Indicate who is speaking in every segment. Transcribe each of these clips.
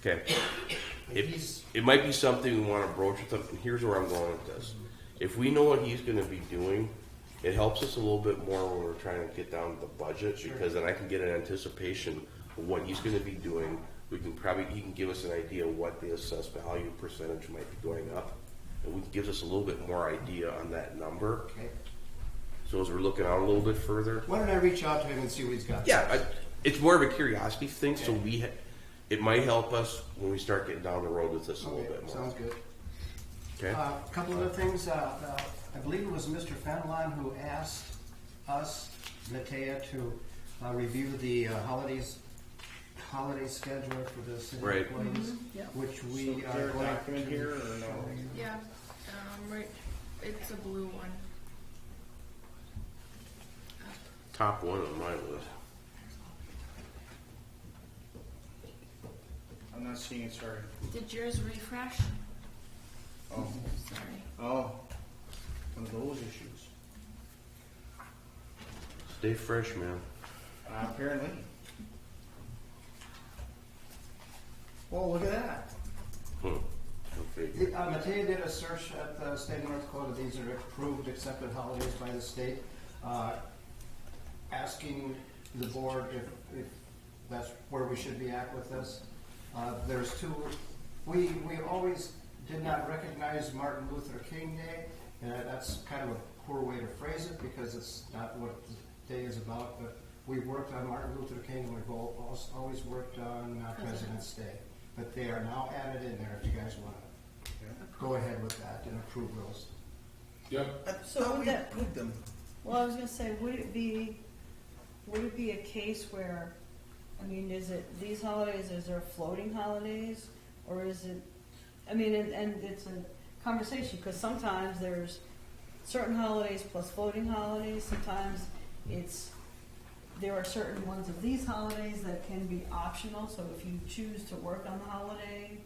Speaker 1: Okay. It, it might be something we want to broach with him. and Here's where I'm going with this. If we know what he's going to be doing, it helps us a little bit more when we're trying to get down to the budget because then I can get an anticipation of what he's going to be doing. We can probably, he can give us an idea of what the assessed value percentage might be going up. And we gives us a little bit more idea on that number.
Speaker 2: Okay.
Speaker 1: So as we're looking out a little bit further,
Speaker 2: Why don't I reach out to him and see what he's got?
Speaker 1: yeah, I, it's more of a curiosity thing. So we, ha- it might help us when we start getting down the road with this a little
Speaker 2: Okay,
Speaker 1: bit more.
Speaker 2: sounds good.
Speaker 1: Okay.
Speaker 2: A couple other things, uh, uh, I believe it was Mr. Fenelon who asked us, Natea, to uh, review the uh, holidays, holiday schedule for the city
Speaker 1: Right.
Speaker 2: employees,
Speaker 3: yeah.
Speaker 2: which
Speaker 4: So
Speaker 2: we
Speaker 4: is
Speaker 2: are
Speaker 4: there a
Speaker 2: going
Speaker 4: document
Speaker 2: to
Speaker 4: here or no?
Speaker 2: show you.
Speaker 3: Yeah, um, right, it's a blue one.
Speaker 1: Top one on my list.
Speaker 4: I'm not seeing it, sorry.
Speaker 3: Did yours refresh?
Speaker 4: Oh,
Speaker 3: Sorry.
Speaker 4: oh, one of those issues.
Speaker 1: Stay fresh, man.
Speaker 4: Uh, apparently. Well, look at that.
Speaker 1: Hmm. Okay.
Speaker 2: The- uh, Matea did a search at the state of North Dakota, these are approved, accepted holidays by the state, uh, asking the board if, if that's where we should be at with this. Uh, There's two, we, we always did not recognize Martin Luther King Day, and that's kind of a poor way to phrase it, because it's not what the day is about, but we worked on Martin Luther King, and we've al- als- always worked on uh, President's Day, but they are now added in there if you guys want to go ahead with that and approve those.
Speaker 4: Uh,
Speaker 5: So would that,
Speaker 4: Put them.
Speaker 5: well, I was gonna say, would it be, would it be a case where, I mean, is it, these holidays, is there floating holidays? Or is it, I mean, and, and it's a conversation, cause sometimes there's certain holidays plus floating holidays, sometimes it's, there are certain ones of these holidays that can be optional, so if you choose to work on the holiday,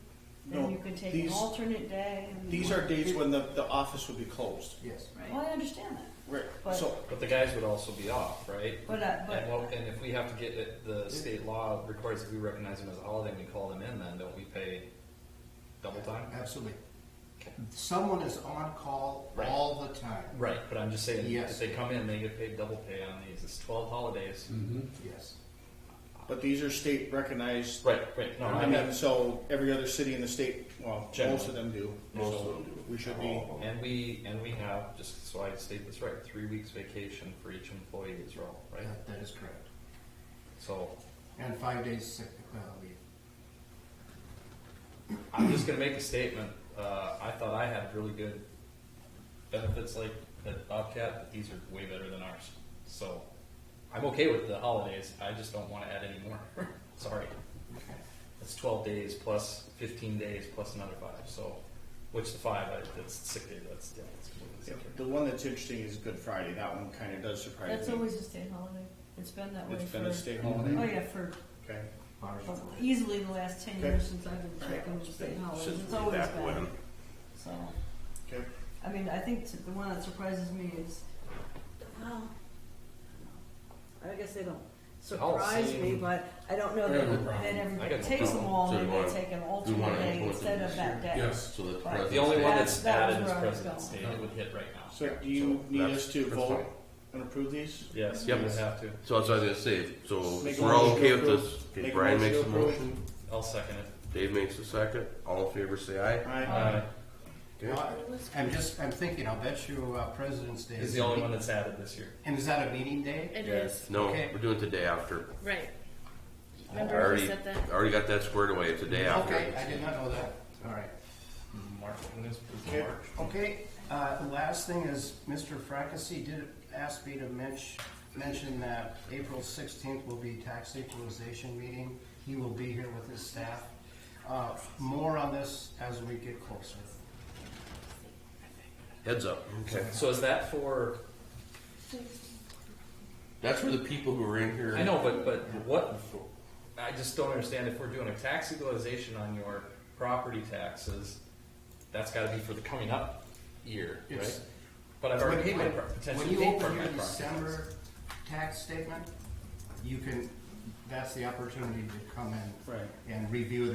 Speaker 4: No,
Speaker 5: then you can take an
Speaker 4: these-
Speaker 5: alternate day. and-
Speaker 4: These are dates when the, the office would be closed.
Speaker 2: Yes.
Speaker 5: Well, I understand that.
Speaker 4: Right.
Speaker 5: But-
Speaker 4: So,
Speaker 6: But the guys would also be off, right?
Speaker 5: But, uh, but-
Speaker 6: and, what, and if we have to get it, the state law requires that we recognize them as a holiday and we call them in, then don't we pay double time?
Speaker 2: Absolutely.
Speaker 6: Okay.
Speaker 2: Someone is on call
Speaker 6: Right.
Speaker 2: all the time.
Speaker 6: Right, but I'm just saying,
Speaker 2: Yes.
Speaker 6: if they come in, they get paid double pay on these. It's 12 holidays. Mm-hmm.
Speaker 2: Yes.
Speaker 4: but these are state recognized.
Speaker 6: Right, right. No, I
Speaker 4: And then,
Speaker 6: mean,
Speaker 4: so every other city in the state, well, most
Speaker 6: Generally.
Speaker 4: of them do.
Speaker 1: Most
Speaker 4: So
Speaker 1: of them do. Oh.
Speaker 4: We should be,
Speaker 6: and we and we have just so I state this right, three weeks vacation for each employee as well, right?
Speaker 2: That- that is correct.
Speaker 6: So
Speaker 2: And five days sick uh, leave.
Speaker 6: I'm just gonna make a statement. Uh, I thought I had really good benefits like at Bobcat, but these are way better than ours. So I'm okay with the holidays. I just don't want to add any more. Sorry. It's 12 days plus 15 days plus another five. So, which the five, I, that's sick day. That's yeah, that's completely separate.
Speaker 4: the one that's interesting is Good Friday. That one kind of does surprise me.
Speaker 5: That's always a state holiday. It's been that way
Speaker 4: It's
Speaker 5: for.
Speaker 4: been a state
Speaker 5: Oh,
Speaker 4: holiday.
Speaker 5: yeah, for
Speaker 4: Okay.
Speaker 2: Bars are closed.
Speaker 5: easily the last ten
Speaker 4: Okay.
Speaker 5: years since I've been checking the state holidays.
Speaker 1: Since
Speaker 5: It's
Speaker 1: way
Speaker 5: always
Speaker 1: back
Speaker 5: been.
Speaker 1: when.
Speaker 5: So,
Speaker 4: Okay.
Speaker 5: I mean, I think t- the one that surprises me is, well, I guess they don't surprise me,
Speaker 6: seem-
Speaker 5: but I don't know
Speaker 7: I got no
Speaker 5: that,
Speaker 7: problem.
Speaker 5: that
Speaker 6: I
Speaker 5: everybody
Speaker 6: got no
Speaker 5: takes them all,
Speaker 1: So
Speaker 5: maybe
Speaker 1: you
Speaker 5: they
Speaker 1: wanna-
Speaker 5: take an
Speaker 1: We want
Speaker 5: alternate
Speaker 1: to
Speaker 5: day
Speaker 1: implement
Speaker 5: instead
Speaker 1: this
Speaker 5: of that
Speaker 1: year.
Speaker 5: day.
Speaker 7: Yes.
Speaker 1: So that the
Speaker 5: Right.
Speaker 1: president.
Speaker 6: The only one
Speaker 5: That's-
Speaker 6: that's
Speaker 5: that was
Speaker 6: added is
Speaker 5: where I was
Speaker 6: President's
Speaker 5: going.
Speaker 6: Day. It would hit right now.
Speaker 4: So do you
Speaker 1: So
Speaker 4: need
Speaker 1: that's-
Speaker 4: us to
Speaker 1: that's
Speaker 4: vote
Speaker 1: fine.
Speaker 4: and approve these?
Speaker 6: Yes,
Speaker 1: Yep.
Speaker 6: you would have to.
Speaker 1: So that's what I was gonna say. So
Speaker 4: Make
Speaker 1: if
Speaker 4: a
Speaker 1: we're all
Speaker 4: motion
Speaker 1: okay
Speaker 4: to
Speaker 1: with
Speaker 4: approve.
Speaker 1: this. Okay,
Speaker 4: Make a
Speaker 1: Brian makes
Speaker 4: motion
Speaker 1: a
Speaker 4: to
Speaker 1: motion.
Speaker 6: I'll second it.
Speaker 1: Dave makes a second. All in favor, say aye.
Speaker 4: Aye.
Speaker 6: Uh,
Speaker 1: Okay.
Speaker 2: I'm just, I'm thinking, I'll bet you uh, President's Day.
Speaker 6: is the only one that's added this year.
Speaker 2: And is that a meeting day?
Speaker 3: It
Speaker 6: Yes.
Speaker 3: is,
Speaker 1: No,
Speaker 2: Okay.
Speaker 1: we're doing it the day after.
Speaker 3: right.
Speaker 1: I
Speaker 3: Remember we
Speaker 1: already,
Speaker 3: said that?
Speaker 1: I already got that squared away. It's the day after.
Speaker 2: Okay, I did not know that. All right.
Speaker 6: March. When is, is
Speaker 4: Okay.
Speaker 6: March?
Speaker 2: Okay, uh, the last thing is Mr. Fracassi did ask me to mench, mention that April sixteenth will be tax equalization meeting. He will be here with his staff. Uh, more on this as we get closer.
Speaker 1: Heads up. Okay.
Speaker 6: So is that for?
Speaker 1: That's for the people who are in here.
Speaker 6: I know, but but what? I just don't understand if we're doing a tax equalization on your property taxes, that's got to be for the coming up year,
Speaker 2: Yes.
Speaker 6: right? But I've already paid my pro-
Speaker 2: When
Speaker 6: potentially
Speaker 2: you
Speaker 6: paid for
Speaker 2: open
Speaker 6: my
Speaker 2: your
Speaker 6: property. taxes.
Speaker 2: December tax statement, you can, that's the opportunity to come in
Speaker 4: Right.
Speaker 2: and review